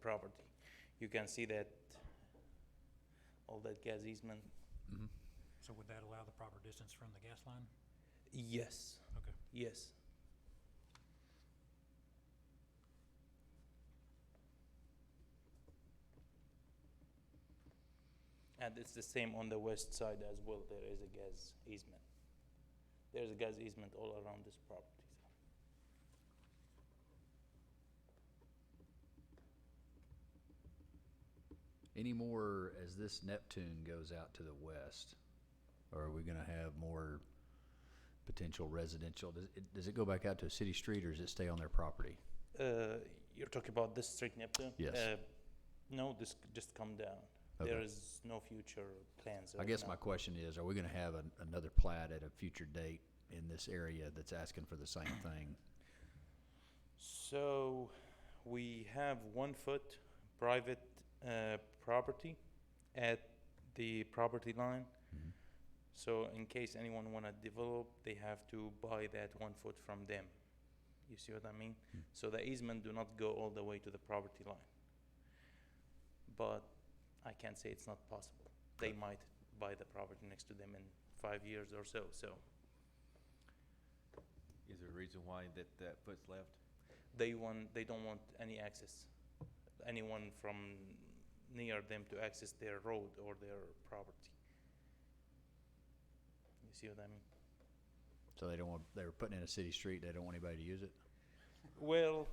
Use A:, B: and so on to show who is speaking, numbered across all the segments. A: property. You can see that, all that gas easement,
B: Mm-hmm.
C: So would that allow the proper distance from the gas line?
A: yes,
C: Okay.
A: yes. And it's the same on the west side as well, there is a gas easement. There's a gas easement all around this property, so.
B: Any more as this Neptune goes out to the west? Or are we gonna have more potential residential? Does it, does it go back out to a city street or does it stay on their property?
A: Uh, you're talking about this street, Neptune?
B: Yes.
A: Uh, No, this, c- just come down. There
B: Okay.
A: is uh, no future plans
B: I
A: right
B: guess
A: now.
B: my question is, are we gonna have an, another plat at a future date in this area that's asking for the same thing?
A: So, we have one foot private uh, property at the property line.
B: Mhm.
A: So in case anyone wanna develop, they have to buy that one foot from them. You see what I mean?
B: Mm.
A: So the easement do not go all the way to the property line. But I can't say it's not possible. They
B: Okay.
A: might buy the property next to them in five years or so, so
D: Is there a reason why that, that foot's left?
A: they want, they don't want any access, anyone from near them to access their road or their property. You see what I mean?
B: So they don't want, they were putting in a city street, they don't want anybody to use it?
A: Well,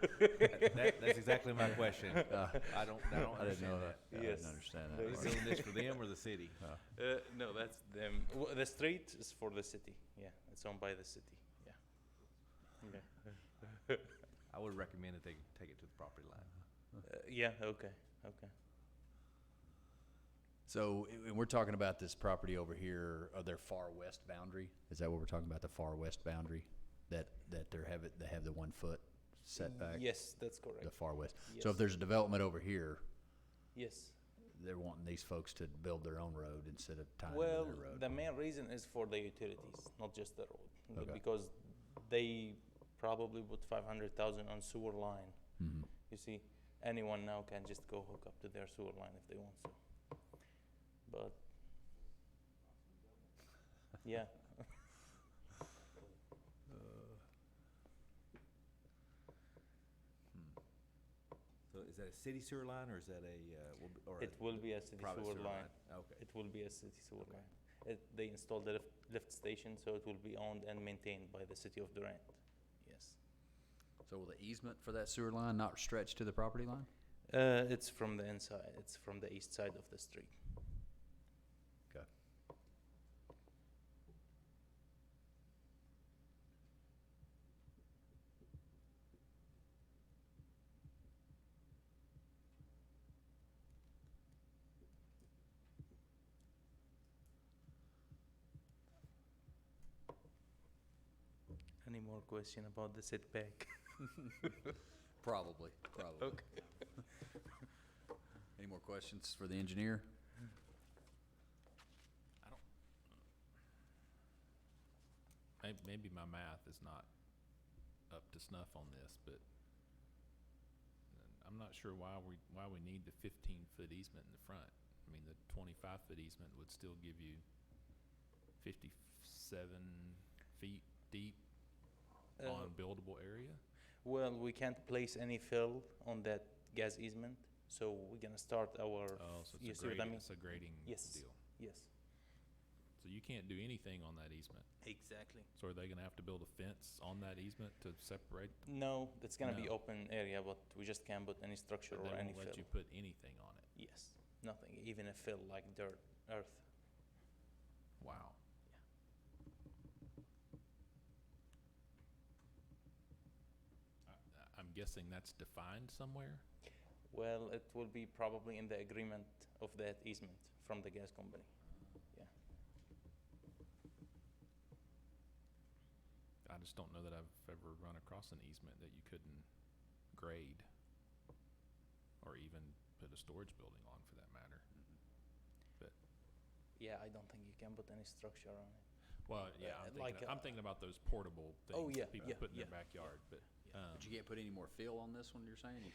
D: That- that- That's exactly my question.
B: Uh,
D: I don't, I don't
B: I didn't know
D: understand
B: that.
D: that.
B: I didn't
A: Yes.
B: understand
A: There
B: that.
D: Is
A: is-
B: part.
D: doing this for them or the city?
B: Uh,
A: Uh, no, that's them. W- The street is for the city. Yeah, it's owned by the city. Yeah. Yeah.
D: I would recommend that they take it to the property line.
A: Uh, yeah. Okay. Okay.
B: So, and we're talking about this property over here, of their far west boundary? Is that what we're talking about, the far west boundary? That, that they're have it, they have the one foot setback?
A: Yes, that's
B: The
A: correct.
B: far west.
A: Yes.
B: So if there's a development over here,
A: Yes.
B: they're wanting these folks to build their own road instead of tying into their
A: Well,
B: road?
A: the main reason is for the utilities, not just the road, But
B: Okay.
A: because they probably put five hundred thousand on sewer line.
B: Mhm.
A: You see, anyone now can just go hook up to their sewer line if they want to. But yeah.
D: Uh, hmm. So is that a city sewer line or is that a, uh, will be- or? a
A: It will be a city
D: private
A: sewer line.
D: Okay.
A: It will be a city sewer
D: Okay.
A: line. It, they installed the lift, lift station, so it will be owned and maintained by the city of Durant. Yes.
B: So will the easement for that sewer line not stretch to the property line?
A: Uh, it's from the inside. It's from the east side of the street.
B: Okay.
A: Any more question about the setback?
B: Probably, probably.
A: Okay.
B: Any more questions for the engineer?
E: May- Maybe my math is not up to snuff on this, but I'm not sure why we, why we need the fifteen foot easement in the front. I mean, the twenty-five foot easement would still give you fifty-seven feet deep
A: Uh,
E: on buildable area.
A: Well, we can't place any fill on that gas easement, so we're gonna start our.
E: Oh, so
A: you
E: it's a
A: see what I
E: grading,
A: mean?
E: it's a grading
A: Yes.
E: deal.
A: Yes.
E: So you can't do anything on that easement.
A: Exactly.
E: So are they gonna have to build a fence on that easement to separate?
A: No, it's gonna be
E: No.
A: open area, but we just can't put any structure
E: They
A: or any
E: won't
A: fill.
E: let you put anything on it.
A: Yes, nothing, even a fill like dirt, earth.
E: Wow. I- I'm guessing that's defined somewhere?
A: Well, it will be probably in the agreement of that easement from the gas company. Yeah.
E: I just don't know that I've ever run across an easement that you couldn't grade or even put a storage building on for that matter. But,
A: Yeah, I don't think you can put any structure on it.
E: well, yeah,
A: Uh,
E: I'm
A: like,
E: thinking,
A: uh,
E: I'm thinking about those portable
A: Oh,
E: things
A: yeah,
E: that people
A: yeah,
E: put in their
A: yeah,
E: backyard, but, um,
B: But you can't put any more fill on this one, you're saying? You